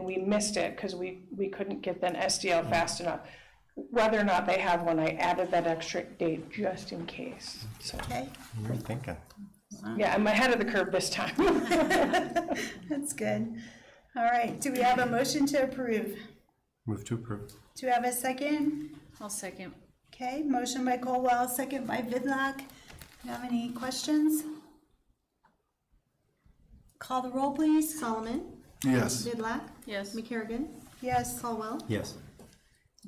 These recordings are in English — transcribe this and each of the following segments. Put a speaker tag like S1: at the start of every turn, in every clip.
S1: we missed it because we, we couldn't get an SDL fast enough. Whether or not they have one, I added that extra date just in case, so,
S2: Okay,
S3: You were thinking.
S1: yeah, I'm ahead of the curve this time.
S2: that's good. All right, do we have a motion to approve?
S3: Move to approve.
S2: Do we have a second?
S4: I'll second.
S2: Okay, motion by Colwell, second by Vidlac. Do you have any questions? Call the roll, please.
S5: Solomon.
S3: Yes.
S5: Vidlac.
S4: Yes.
S5: McCarrigan.
S2: Yes.
S5: Caldwell.
S3: Yes.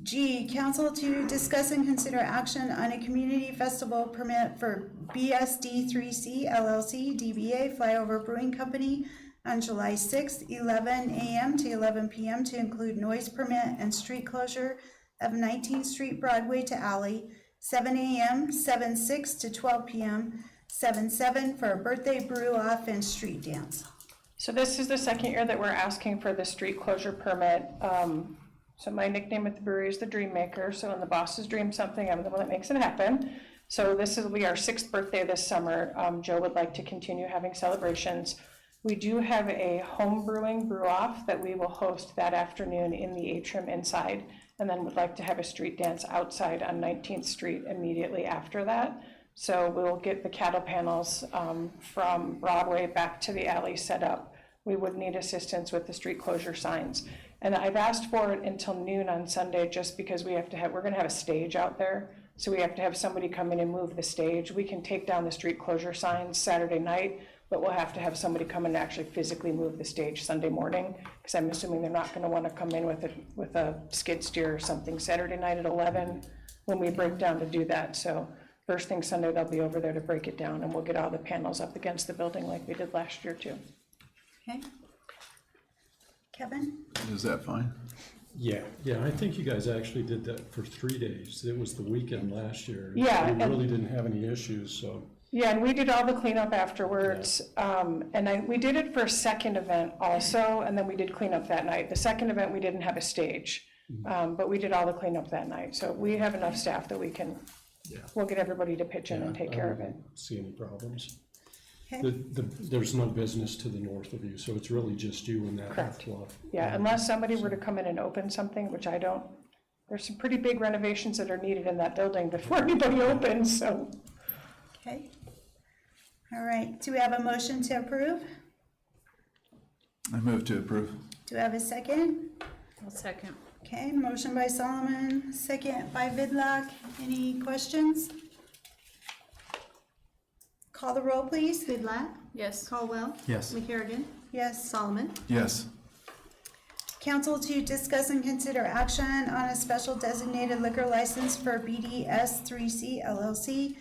S2: G, council to discuss and consider action on a community festival permit for BSD three C LLC DBA Flyover Brewing Company on July sixth, eleven AM to eleven PM to include noise permit and street closure of Nineteenth Street Broadway to Alley, seven AM, seven six to twelve PM, seven seven for a birthday brew off and street dance.
S1: So this is the second year that we're asking for the street closure permit. Um, So my nickname at the brewery is the Dream Maker, so when the bosses dream something, I'm the one that makes it happen. So this will be our sixth birthday this summer. Um, Joe would like to continue having celebrations. We do have a home brewing brew-off that we will host that afternoon in the atrium inside, and then would like to have a street dance outside on 19th Street immediately after that. So we'll get the cattle panels um, from Broadway back to the alley set up. We would need assistance with the street closure signs. And I've asked for it until noon on Sunday, just because we have to have, we're gonna have a stage out there. So we have to have somebody come in and move the stage. We can take down the street closure signs Saturday night, but we'll have to have somebody come in and actually physically move the stage Sunday morning, because I'm assuming they're not gonna wanna come in with a, with a skid steer or something Saturday night at eleven when we break down to do that. So first thing Sunday, they'll be over there to break it down, and we'll get all the panels up against the building like we did last year too.
S2: Okay? Kevin?
S6: Is that fine?
S7: Yeah, yeah, I think you guys actually did that for three days. It was the weekend last year.
S1: Yeah,
S7: We
S1: and-
S7: really didn't have any issues, so.
S1: Yeah, and we did all the cleanup afterwards, um, and I, we did it for a second event also, and then we did cleanup that night. The second event, we didn't have a stage, um, but we did all the cleanup that night, so we have enough staff that we can, we'll get everybody to pitch in and take
S7: I
S1: care of it.
S7: wouldn't See any problems.
S2: Okay.
S7: The, the, there's no business to the north of you, so it's really just you and that
S1: Correct.
S7: half lot.
S1: Yeah, unless somebody were to come in and open something, which I don't, there's some pretty big renovations that are needed in that building before anybody opens, so.
S2: Okay. All right, do we have a motion to approve?
S6: I move to approve.
S2: Do we have a second?
S4: I'll second.
S2: Okay, motion by Solomon, second by Vidlac. Any questions? Call the roll, please.
S5: Vidlac.
S4: Yes.
S5: Caldwell.
S3: Yes.
S5: McCarrigan.
S2: Yes.
S5: Solomon.
S6: Yes.
S2: Council to discuss and consider action on a special designated liquor license for BDS three C LLC,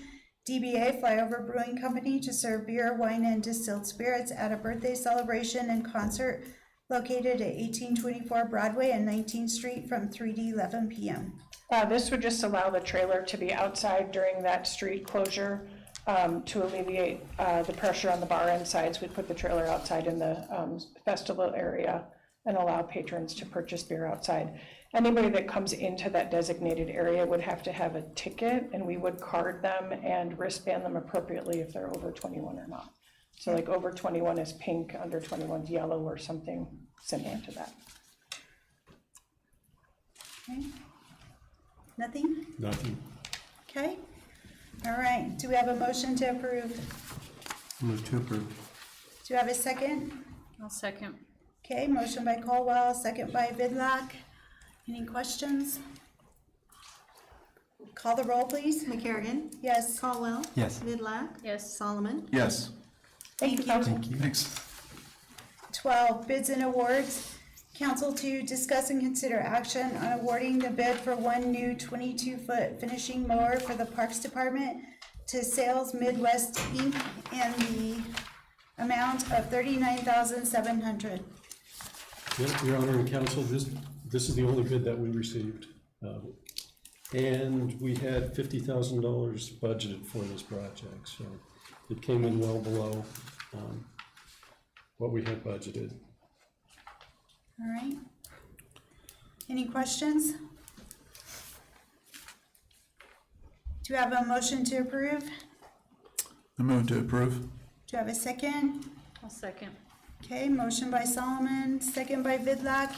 S2: DBA Flyover Brewing Company to serve beer, wine, and distilled spirits at a birthday celebration and concert located at eighteen twenty-four Broadway and Nineteenth Street from three to eleven PM.
S1: Uh, this would just allow the trailer to be outside during that street closure, um, to alleviate, uh, the pressure on the bar end sides. We'd put the trailer outside in the, um, festival area and allow patrons to purchase beer outside. Anybody that comes into that designated area would have to have a ticket, and we would card them and wristband them appropriately if they're over twenty-one or not. So like over twenty-one is pink, under 21 is yellow, or something similar to that.
S2: Okay? Nothing?
S7: Nothing.
S2: Okay? All right, do we have a motion to approve?
S3: Move to approve.
S2: Do you have a second?
S4: I'll second.
S2: Okay, motion by Caldwell, second by Vidlac. Any questions? Call the roll, please.
S5: McCarrigan.
S2: Yes.
S5: Caldwell.
S3: Yes.
S5: Vidlac.
S4: Yes.
S5: Solomon.
S6: Yes.
S2: Thank you.
S3: Thank you.
S6: Thanks.
S2: Twelve, bids and awards. Council to discuss and consider action on awarding the bid for one new twenty-two foot finishing mower for the Parks Department to Sales Midwest Inc. and the amount of thirty-nine thousand seven hundred.
S7: Yep, Your Honor and Counsel, this, this is the only bid that we received. Um, And we had fifty thousand dollars budgeted for this project, so it came in well below um, what we had budgeted.
S2: All right. Any questions? Do you have a motion to approve? Do
S6: I move to approve.
S2: you have a second?
S4: I'll second.
S2: Okay, motion by Solomon, second by Vidlac.